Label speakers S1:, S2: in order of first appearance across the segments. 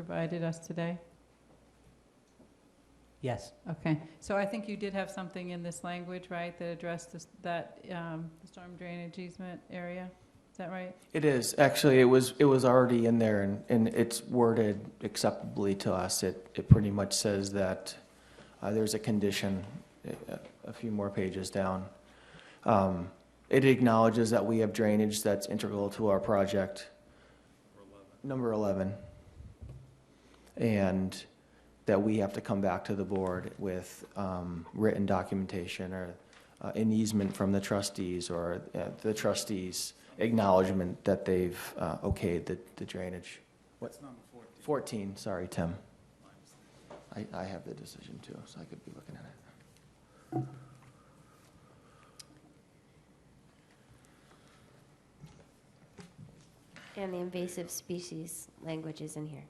S1: provided us today?
S2: Yes.
S1: Okay, so I think you did have something in this language, right, that addressed this, that, um, the storm drainage easement area? Is that right?
S3: It is, actually, it was, it was already in there and, and it's worded acceptably to us. It, it pretty much says that, uh, there's a condition, uh, a few more pages down. Um, it acknowledges that we have drainage that's integral to our project. Number eleven. And that we have to come back to the board with, um, written documentation or uh, an easement from the trustees or uh, the trustees' acknowledgement that they've uh, okayed the the drainage.
S4: That's number fourteen.
S3: 14, sorry, Tim. I, I have the decision too, so I could be looking at it.
S5: And the invasive species language is in here.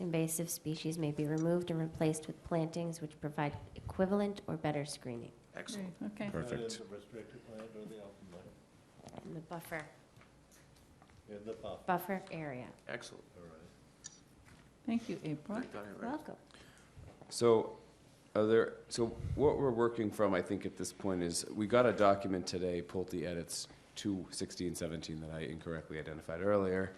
S5: Invasive species may be removed and replaced with plantings which provide equivalent or better screening.
S3: Excellent.
S1: Okay,
S6: Perfect.
S4: the restricted land or the open land?
S5: And the buffer,
S4: In the buffer,
S5: buffer area.
S3: Excellent.
S4: all right.
S1: thank you, April.
S5: Welcome.
S6: So, are there, so what we're working from, I think, at this point is, we got a document today, Pulte edits two sixteen seventeen that I incorrectly identified earlier.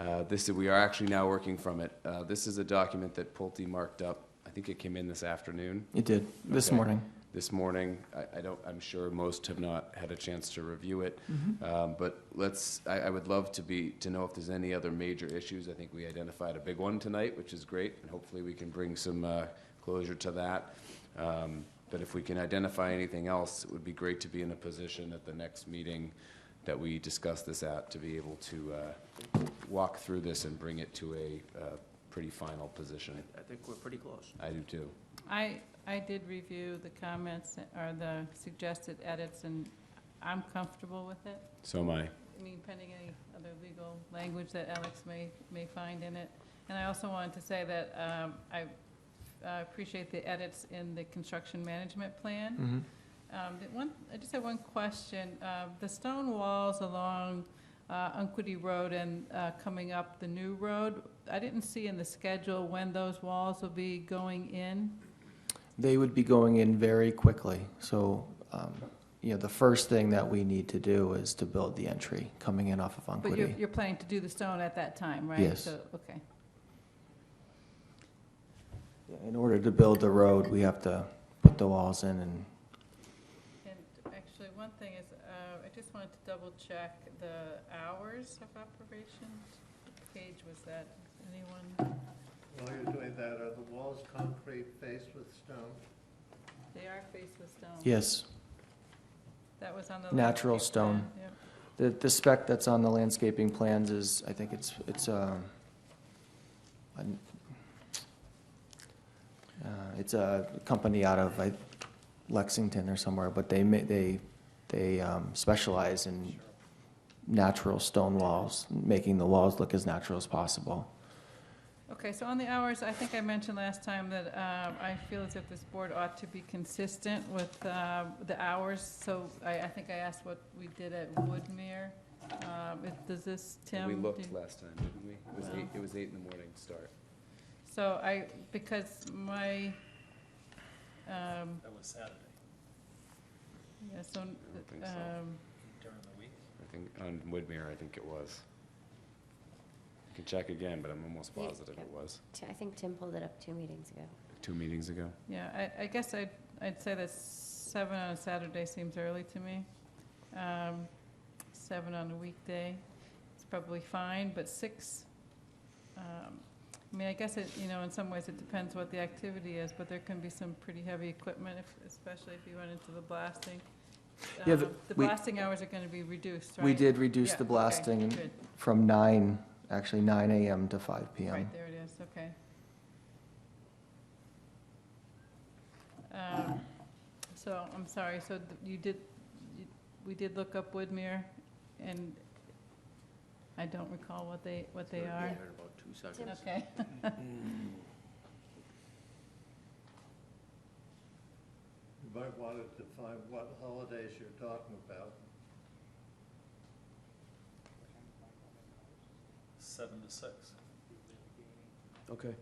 S6: Uh, this, we are actually now working from it. Uh, this is a document that Pulte marked up, I think it came in this afternoon,
S3: It did, this
S6: Okay.
S3: morning.
S6: this morning. I, I don't, I'm sure most have not had a chance to review it. Um, But let's, I, I would love to be, to know if there's any other major issues. I think we identified a big one tonight, which is great, and hopefully we can bring some uh, closure to that. Um, But if we can identify anything else, it would be great to be in a position at the next meeting that we discuss this at, to be able to uh, walk through this and bring it to a uh, pretty final position.
S3: I think we're pretty close.
S6: I do too.
S1: I, I did review the comments or the suggested edits, and I'm comfortable with it.
S6: So am I.
S1: I mean, pending any other legal language that Alex may, may find in it. And I also wanted to say that um, I uh, appreciate the edits in the construction management plan.
S3: Mm-hmm.
S1: Um, the One, I just had one question. Uh, The stone walls along uh, Unquity Road and uh, coming up the new road, I didn't see in the schedule when those walls will be going in.
S3: They would be going in very quickly, so, um, you know, the first thing that we need to do is to build the entry coming in off of
S1: But you're,
S3: Unquity.
S1: you're planning to do the stone at that time, right?
S3: Yes.
S1: So, okay,
S3: In order to build the road, we have to put the walls in and
S1: and actually, one thing is, uh, I just wanted to double check the hours of operation. What Page was that, anyone,
S4: While you're doing that, are the walls concrete faced with stone?
S1: they are faced with stone.
S3: Yes,
S1: That was on the.
S3: Natural
S1: landscape plan,
S3: stone.
S1: yep.
S3: the, the spec that's on the landscaping plans is, I think it's, it's, um, an- uh, it's a company out of like, Lexington or somewhere, but they ma, they, they um, specialize in natural stone walls, making the walls look as natural as possible.
S1: Okay, so on the hours, I think I mentioned last time that um, I feel as if this board ought to be consistent with uh, the hours. So I, I think I asked what we did at Woodmere. Um, it- Does this, Tim?
S6: We
S1: do-
S6: looked last time, didn't we? It was
S1: Well.
S6: eight, it was eight in the morning start.
S1: So I, because my, um,
S4: That was Saturday,
S1: yeah, so,
S6: don't think so.
S1: um,
S4: during the week.
S6: I think, on Woodmere, I think it was. I can check again, but I'm almost
S5: Yeah,
S6: positive it was,
S5: Ti- I think Tim pulled it up two meetings ago.
S6: two meetings ago.
S1: yeah, I, I guess I'd, I'd say that seven on a Saturday seems early to me. Um, Seven on a weekday is probably fine, but six, um, I mean, I guess it, you know, in some ways it depends what the activity is, but there can be some pretty heavy equipment, if- especially if you went into the blasting.
S3: Yeah, the-
S1: Um, The
S3: we-
S1: blasting hours are going to be reduced, right?
S3: We did reduce
S1: Yeah,
S3: the
S1: okay,
S3: blasting
S1: good.
S3: from nine, actually nine AM to five PM.
S1: Right, there it is, okay. Um, So, I'm sorry, so th- you did, you- we did look up Woodmere, and I don't recall what they, what they are. Okay.
S4: You might want to define what holidays you're talking about.
S7: Seven to six.
S3: Okay.